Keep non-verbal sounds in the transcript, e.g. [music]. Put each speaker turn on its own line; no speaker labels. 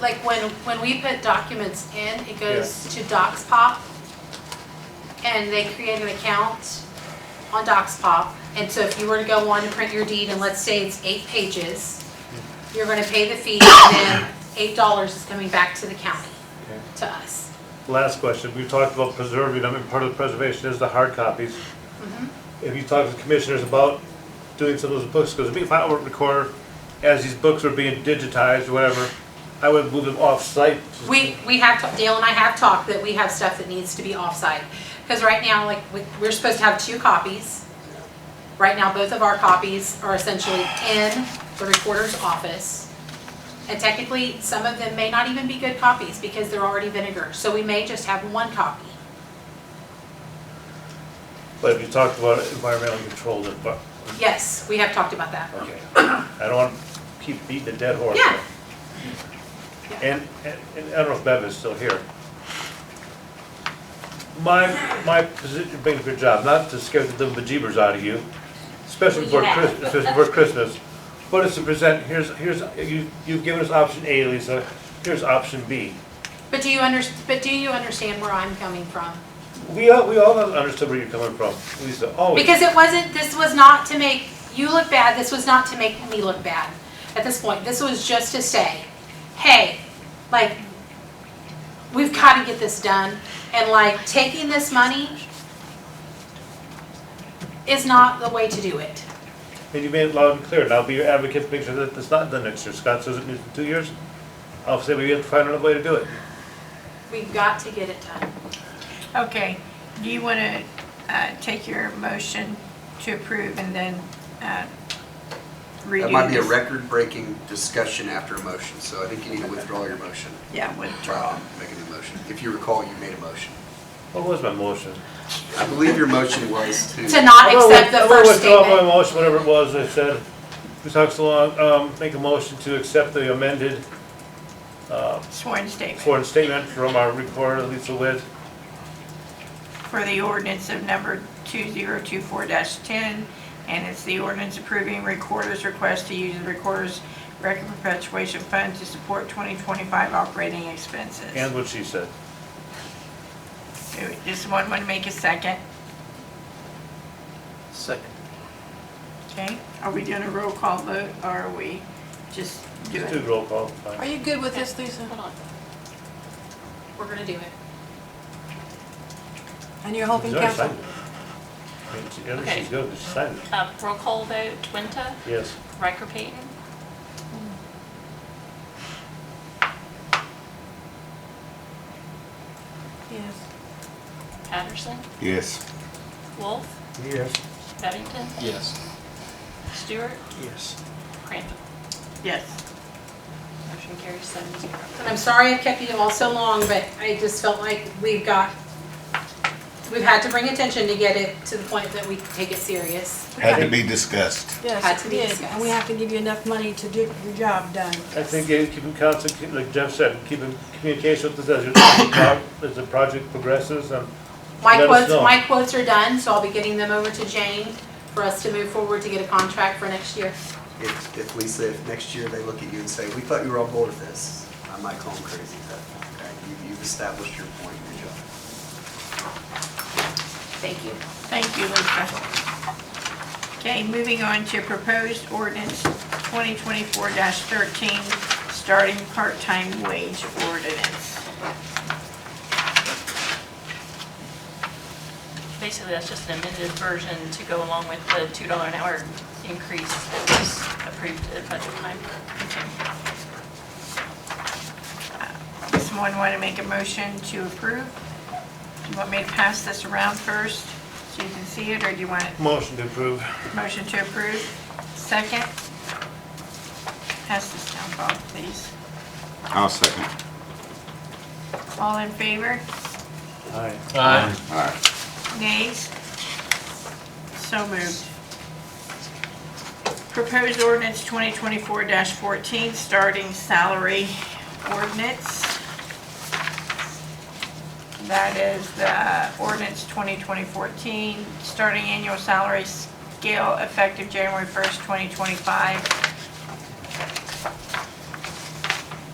like when, when we put documents in, it goes to DocsPop, And they create an account on DocsPop. And so if you were to go on and print your deed, and let's say it's eight pages, you're gonna pay the fee, and then eight dollars is coming back to the county,
Okay.
to us.
Last question, we talked about preserving them, and part of the preservation is the hard copies. Have you talked to the commissioners about doing some of those books? Because if I were to record, as these books are being digitized or whatever, I would move them off-site.
We, we have, ta- Dale and I have talked that we have stuff that needs to be offsite. Because right now, like, we- we're supposed to have two copies. Right now, both of our copies are essentially in the recorder's office. And technically, some of them may not even be good copies because they're already vinegar. So we may just have one copy.
But if you talked about uh, environmental control, then, but,
Yes, we have talked about that.
okay. I don't want to keep beating a dead horse.
Yeah.
And, and and I don't know if Bev is still here. My, my position, being a good job, not to scare the little bejeebers out of you, especially
Well,
for
you have.
Christmas, especially for Christmas. But it's to present, here's, here's, you, you've given us option A, Lisa, here's option B.
But do you under, but do you understand where I'm coming from?
We all, we all understood where you're coming from, Lisa, always.
Because it wasn't, this was not to make you look bad, this was not to make me look bad at this point. This was just to say, hey, like, we've got to get this done. And like, taking this money is not the way to do it.
And you made it loud and clear, and I'll be your advocate to make sure that it's not done next year. Scott says it needs two years, I'll say we have to find another way to do it.
We've got to get it done.
Okay, do you want to take your motion to approve and then uh, redo
That might be a
this?
record-breaking discussion after a motion, so I think you need to withdraw your motion.
Yeah, withdraw.
Try to make a new motion. If you recall, you made a motion.
What was my motion?
I believe your motion was to.
To not
I'm gonna
accept
with-
the
I'm gonna
first
withdraw my
statement.
motion, whatever it was I said. We talked so long, um, make a motion to accept the amended
Sworn statement
sworn statement from our recorder, Lisa Witt.
for the ordinance of number 2024-10, and it's the ordinance approving recorder's request to use the recorder's record perpetuation fund to support 2025 operating expenses.
And what she said.
Does one want to make a second?
Second.
Okay, are we doing a roll call vote, or are we just doing?
Just do roll call.
Are
fine.
you good with this, Lisa?
Hold
Um,
on. We're gonna do it.
And you're
She's
hoping
already
council?
signed it. I mean, she- yeah,
Okay.
She's good, she signed it.
Uh, roll call vote, Twinta,
Yes.
Riker Payton,
Yes.
Patterson,
Yes.
Wolf,
Yes.
Bevington,
Yes.
Stewart,
Yes.
Crandall.
Yes,
Motion carries seven zero.
And I'm sorry I've kept you all so long, but I just felt like we've got, we've had to bring attention to get it to the point that we can take it serious.
Had to be discussed.
Had
Yes,
to
we
be
did. And we
discussed.
have to give you enough money to do your job done.
I think uh, keeping constant, keep- like Jeff said, keeping communication with us as your pro- [coughs] as the project progresses um, and
My
Let us
quotes,
know.
my quotes are done, so I'll be getting them over to Jane for us to move forward to get a contract for next year.
If, if Lisa, if next year they look at you and say, we thought you were on board with this, I might call them crazy, but, okay, you- you've established your point, good job.
Thank you.
thank you, Lisa. Okay, moving on to proposed ordinance 2024-13, starting part-time wage ordinance.
Basically, that's just an amended version to go along with the two dollar an hour increase that was approved at budget time.
Does someone want to make a motion to approve? Do you want me to pass this around first so you can see it, or do you want
motion to approve.
a motion to approve? Second? Pass this down, Bob, please.
I'll second.
All in favor?
Aye.
All right.
Nays? So moved. Proposed ordinance 2024-14, starting salary ordinance. That is the ordinance 2020-14, starting annual salary scale effective January 1st, 2025,